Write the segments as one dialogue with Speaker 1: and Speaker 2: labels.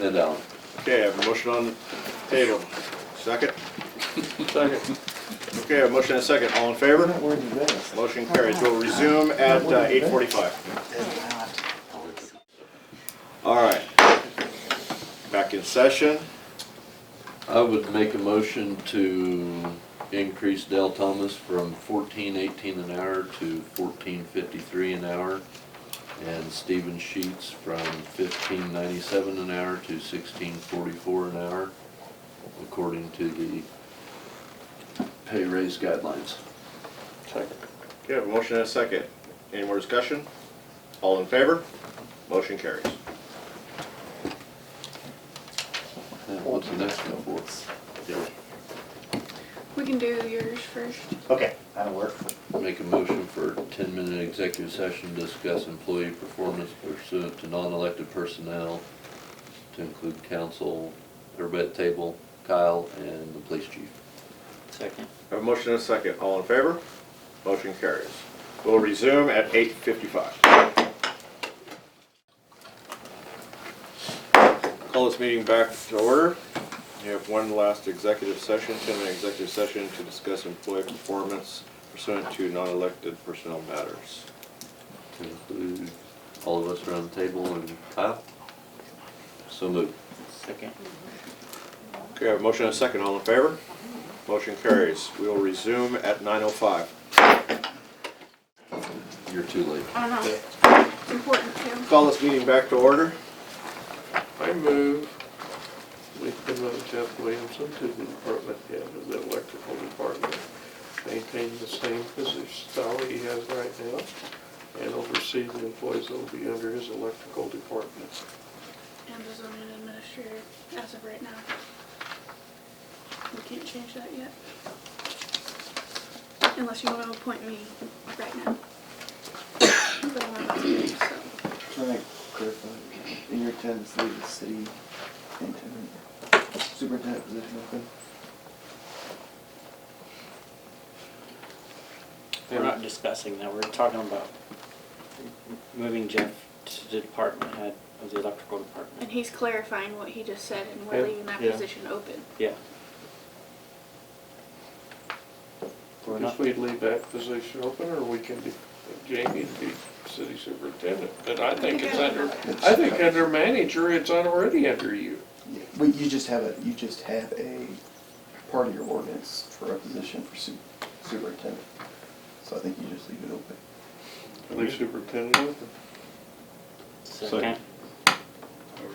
Speaker 1: and Alan.
Speaker 2: Okay, I have a motion on the table. Second? Second. Okay, I have a motion and a second. All in
Speaker 3: We're
Speaker 2: favor?
Speaker 3: not worried about this.
Speaker 2: Motion carries. We'll resume at uh, eight forty-five. All right. Back in session.
Speaker 1: I would make a motion to increase Dale Thomas from fourteen eighteen an hour to fourteen fifty-three an hour. And Stephen Sheets from fifteen ninety-seven an hour to sixteen forty-four an hour, according to the pay raise guidelines.
Speaker 2: Okay, I have a motion and a second. Any more discussion? All in favor? Motion carries.
Speaker 1: Now, what's the next one
Speaker 4: We can do yours first.
Speaker 3: Okay, that'll work.
Speaker 1: for? Make a motion for ten-minute executive session, to discuss employee performance pursuant to non-elected personnel, to include council, everybody at the table, Kyle, and the police chief.
Speaker 5: Second.
Speaker 2: I have a motion and a second. All in favor? Motion carries. We'll resume at eight fifty-five. Call this meeting back to order. We have one last executive session, ten-minute executive session to discuss employee performance pursuant to non-elected personnel matters.
Speaker 1: To include all of us around the table and Kyle. So moved.
Speaker 5: Second.
Speaker 2: Okay, I have a motion and a second. All in favor? Motion carries. We will resume at nine oh five.
Speaker 1: You're too late.
Speaker 4: I don't know, it's important too.
Speaker 2: Call this meeting back to order.
Speaker 6: I move we promote Jeff Williamson to the department head of the electrical department, maintain the same position style he has right now, and oversee the employees that will be under his electrical department.
Speaker 4: And the zoning administrator, as of right now. We can't change that yet. Unless you wanna appoint me right now. But I'm about to, do it, so.
Speaker 3: Can I clarify, in your tendency, the city intendant, superintendent position open?
Speaker 5: We're not discussing that, we're talking about moving Jeff to the department head of the electrical
Speaker 4: And
Speaker 5: department.
Speaker 4: he's clarifying what he just said and we're
Speaker 6: Yeah,
Speaker 4: leaving that
Speaker 6: yeah.
Speaker 4: position open.
Speaker 5: Yeah. We're not,
Speaker 6: If we leave that position open, or we can, de- Jamie be city superintendent, but I think it's under, I think under manager, it's already under you.
Speaker 3: Yeah, But you just have a, you just have a part of your ordinance for a position for su- superintendent. So I think you just leave it open.
Speaker 6: Leave superintendent open.
Speaker 5: second.
Speaker 2: I have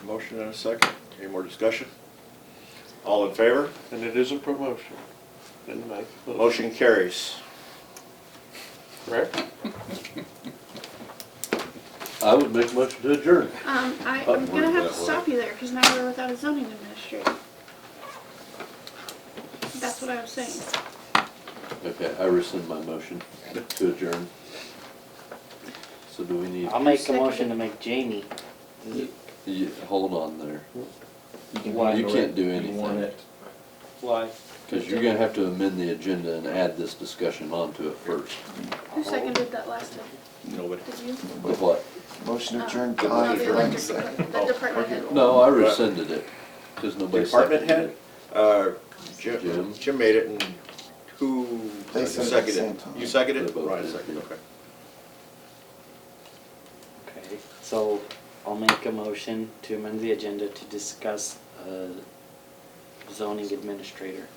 Speaker 2: a motion and a second. Any more discussion? All in favor?
Speaker 6: And it is a promotion. Didn't make the
Speaker 2: Motion carries.
Speaker 6: correct?
Speaker 1: I would make a motion to adjourn.
Speaker 4: Um, I,
Speaker 1: Button worked
Speaker 4: I'm gonna have to
Speaker 1: that way.
Speaker 4: stop you there, cause now we're without a zoning administrator. That's what I was saying.
Speaker 1: Okay, I rescind my motion to adjourn. So do we need,
Speaker 5: I'll make a motion to make Jamie. the-
Speaker 1: you- hold on there.
Speaker 5: Why?
Speaker 1: You can't do anything.
Speaker 5: Why?
Speaker 1: Because you're gonna have to amend the agenda and add this discussion onto it first.
Speaker 4: Who seconded that last time?
Speaker 2: Nobody.
Speaker 4: Did you? Uh-uh.
Speaker 1: With what?
Speaker 3: Motion to adjourn.
Speaker 4: No,
Speaker 3: by
Speaker 4: the
Speaker 3: Frank.
Speaker 4: electric, the department head.
Speaker 1: No, I rescinded it, because nobody
Speaker 2: Department
Speaker 1: seconded
Speaker 2: head?
Speaker 1: it.
Speaker 2: Uh,
Speaker 1: Jim.
Speaker 2: Jim, Jim made it and who
Speaker 3: They said it at the
Speaker 2: seconded?
Speaker 3: same
Speaker 2: it?
Speaker 3: time.
Speaker 2: You seconded?
Speaker 1: They
Speaker 2: it?
Speaker 1: both
Speaker 2: Right,
Speaker 1: did,
Speaker 2: second,
Speaker 1: yeah.
Speaker 2: okay.
Speaker 5: Okay, so I'll make a motion to amend the agenda to discuss uh, zoning administrator.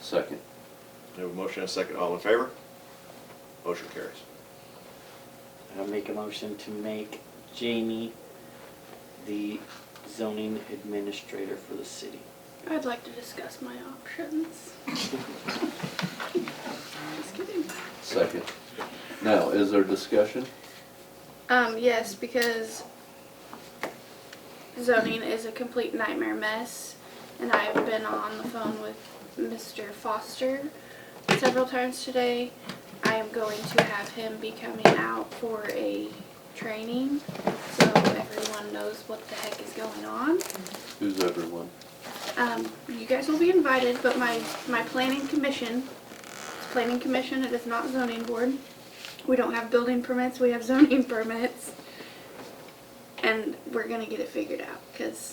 Speaker 1: Second.
Speaker 2: We have a motion and a second. All in favor? Motion carries.
Speaker 5: I'll make a motion to make Jamie the zoning administrator for the city.
Speaker 4: I'd like to discuss my options. Just kidding.
Speaker 1: Second. Now, is there discussion?
Speaker 4: Um, yes, because zoning is a complete nightmare mess, and I've been on the phone with Mr. Foster several times today. I am going to have him be coming out for a training, so everyone knows what the heck is going on.
Speaker 1: Who's everyone?
Speaker 4: Um, you guys will be invited, but my, my planning commission, it's planning commission, it is not zoning board. We don't have building permits, we have zoning permits. And we're gonna get it figured out, cause